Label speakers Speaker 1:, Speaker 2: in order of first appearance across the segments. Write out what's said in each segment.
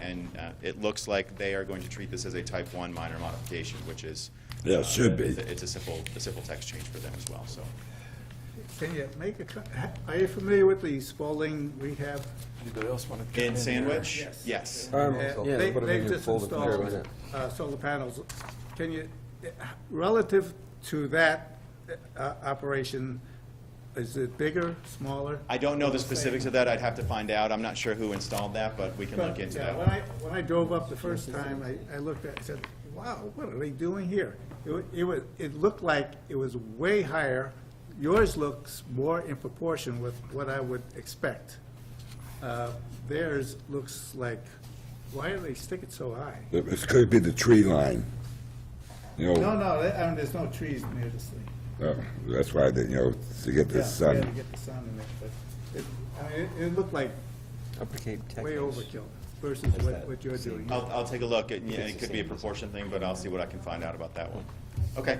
Speaker 1: and uh, it looks like they are going to treat this as a type 1 minor modification, which is...
Speaker 2: Yeah, it
Speaker 1: uh,
Speaker 2: should be.
Speaker 1: it's a- It's a simple, a simple text change for them as well, so.
Speaker 3: Can you make a, co- ha- are you familiar with the Spalding rehab?
Speaker 4: Anybody else want to?
Speaker 1: In Sandwich?
Speaker 3: Yes.
Speaker 1: Yes.
Speaker 3: Uh,
Speaker 5: Um, yeah,
Speaker 3: They,
Speaker 5: put them in
Speaker 3: they've
Speaker 5: your
Speaker 3: just
Speaker 5: folder for a
Speaker 3: installed
Speaker 5: minute.
Speaker 3: uh, solar panels. Can you, relative to that uh, operation, is it bigger, smaller?
Speaker 1: I don't know the specifics of that. I'd have to find out. I'm not sure who installed that, but we can
Speaker 3: But,
Speaker 1: look into
Speaker 3: yeah,
Speaker 1: that.
Speaker 3: When I, when I drove up the first time, I, I looked at, it, I said, wow, what are they doing here? It wa- It was, it looked like it was way higher. Yours looks more in proportion with what I would expect. Uh, Theirs looks like, why do they stick it so high?
Speaker 2: It could be the tree line. You
Speaker 3: No,
Speaker 2: know,
Speaker 3: no, that- um, there's no trees near this thing.
Speaker 2: uh, that's why, they, you know, to get the
Speaker 3: Yeah, we had to
Speaker 2: sun.
Speaker 3: get the sun in it, but it, I mean, it- it looked like
Speaker 5: Upper Cape Tech.
Speaker 3: way
Speaker 5: News.
Speaker 3: overkill versus what,
Speaker 5: that
Speaker 3: what you're doing.
Speaker 1: I'll, I'll take a look. It, yeah,
Speaker 5: it's
Speaker 1: it
Speaker 5: the
Speaker 1: could be a
Speaker 5: same.
Speaker 1: proportion thing, but I'll see what I can find out about that one. Okay.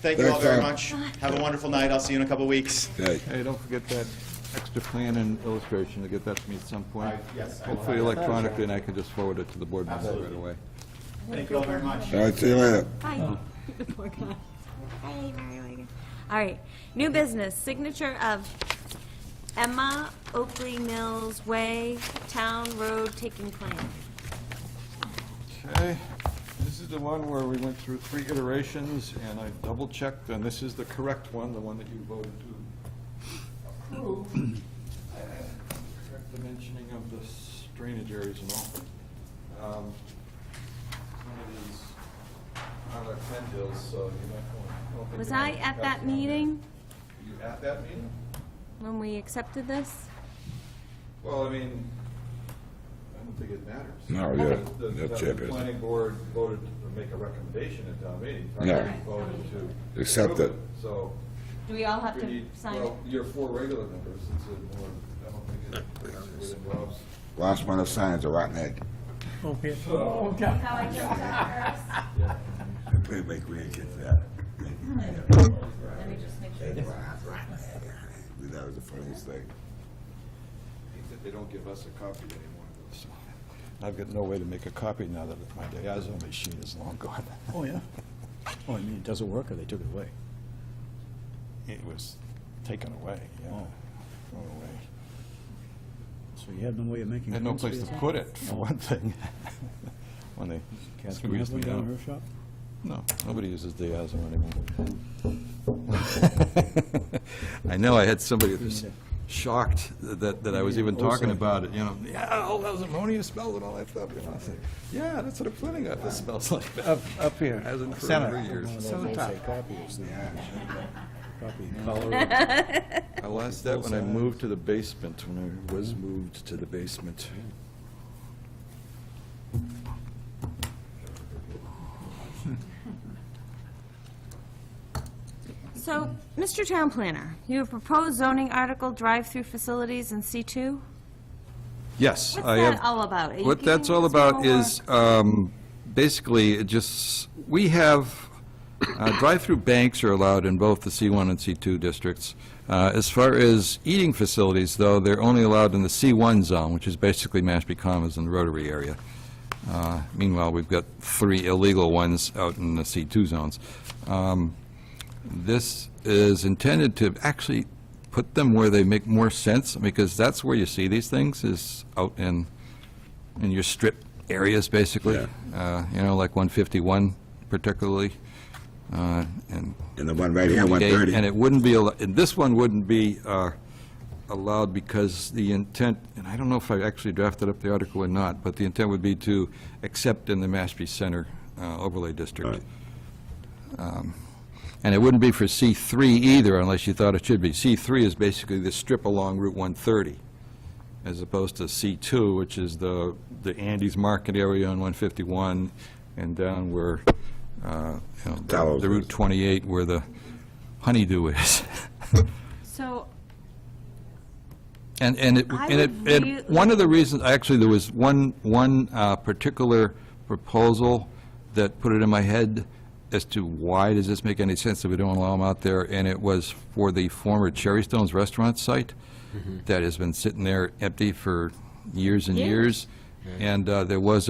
Speaker 1: Thank you all very much.
Speaker 2: Thanks,
Speaker 1: Have a wonderful night. I'll see you in a couple weeks.
Speaker 2: Okay.
Speaker 4: Hey, don't forget that extra plan and illustration, to get that to me at some point.
Speaker 1: I- yes, I will
Speaker 4: Hopefully
Speaker 1: have that.
Speaker 4: electronically, and I can just forward it to the board members right
Speaker 1: Absolutely.
Speaker 4: away.
Speaker 1: Thank you all very much.
Speaker 2: All right, see you later.
Speaker 6: Hi. Poor guy. Hi, Mario Hager. All right, new business, signature of Emma Oakley Mills Way Town Road Taking Plan.
Speaker 4: Okay, this is the one where we went through three iterations, and I double-checked, and this is the correct one, the one that you voted to approve. Correct dimensioning of the s- drainage areas and all. Um, One of these are like pen deals, so you might want.
Speaker 6: Was I at that meeting
Speaker 4: Were you at that meeting?
Speaker 6: when we accepted this?
Speaker 4: Well, I mean, I don't think it matters.
Speaker 2: No, yeah,
Speaker 4: The-
Speaker 2: no
Speaker 4: the- The
Speaker 2: jeopardy.
Speaker 4: planning board voted to make a recommendation at town meeting. Town
Speaker 2: Yeah.
Speaker 4: meeting Voted to.
Speaker 2: Accept
Speaker 4: approve
Speaker 2: it.
Speaker 4: So.
Speaker 6: Do we all have
Speaker 4: we
Speaker 6: to
Speaker 4: need-
Speaker 6: sign?
Speaker 4: Well, you're four regular members, it's a more, I don't think it it involves.
Speaker 2: Last one of signs a rotten egg.
Speaker 4: Oh,
Speaker 6: How I jumped out first?
Speaker 2: Please make we get that.
Speaker 6: Let me just make sure.
Speaker 2: That was the funniest thing.
Speaker 4: That they don't give us a copy anymore. so. I've got no way to make a copy now that my Diazo machine is long gone.
Speaker 7: Oh, yeah. Oh, I mean, it doesn't work, or they took it away?
Speaker 4: It was taken away, yeah, thrown away.
Speaker 7: So you had no way of making.
Speaker 4: Had no
Speaker 7: prints?
Speaker 4: place to put it, for one thing. When they
Speaker 7: Catherine have
Speaker 4: squeezed me
Speaker 7: one down
Speaker 4: out.
Speaker 7: in her shop?
Speaker 4: No, nobody uses Diazo anymore. I know, I had somebody that was shocked that, that I was even talking about it, you know, yeah, all those ammonia smells and all that stuff, you know, I said, yeah, that's what a planning office smells like.
Speaker 3: Up, up here,
Speaker 4: Hasn't for
Speaker 3: center.
Speaker 4: over years.
Speaker 3: Center top.
Speaker 7: Copy color.
Speaker 4: I lost that when I moved to the basement, when I was moved to the basement.
Speaker 6: So, Mr. Town Planner, you have proposed zoning article drive-through facilities in C2?
Speaker 4: Yes,
Speaker 6: What's
Speaker 4: I have.
Speaker 6: that all about? Are you
Speaker 4: What
Speaker 6: giving
Speaker 4: that's all
Speaker 6: us more
Speaker 4: about
Speaker 6: work?
Speaker 4: is, um, basically, it just, we have, uh, drive-through banks are allowed in both the C1 and C2 districts. Uh, As far as eating facilities, though, they're only allowed in the C1 zone, which is basically Mashpee Commons and the Rotary area. Uh, Meanwhile, we've got three illegal ones out in the C2 zones. Um, This is intended to actually put them where they make more sense, because that's where you see these things, is out in in your strip areas, basically. Uh, You know, like 151 particularly, uh, and...
Speaker 2: And the one right here, one
Speaker 4: Gate,
Speaker 2: thirty.
Speaker 4: And it wouldn't be, al- and this one wouldn't be uh, allowed because the intent, and I don't know if I actually drafted up the article or not, but the intent would be to accept in the Mashpee Center uh, overlay district.
Speaker 2: Right.
Speaker 4: Um, And it wouldn't be for C3 either unless you thought it should be. C3 is basically the strip along Route 130, as opposed to C2, which is the, the Andes Market area on 151 and down where, uh, you know, the-
Speaker 2: Gallows
Speaker 4: the
Speaker 2: is.
Speaker 4: Route 28 where the honeydew is.
Speaker 6: So,
Speaker 4: And, and it,
Speaker 6: I
Speaker 4: and it,
Speaker 6: would
Speaker 4: and
Speaker 6: really-
Speaker 4: one of the reasons, actually, there was one, one uh, particular proposal that put it in my head as to why does this make any sense that we don't allow them out there, and it was for the former Cherry Stones Restaurant site that has been sitting there empty for years and years. And uh, there was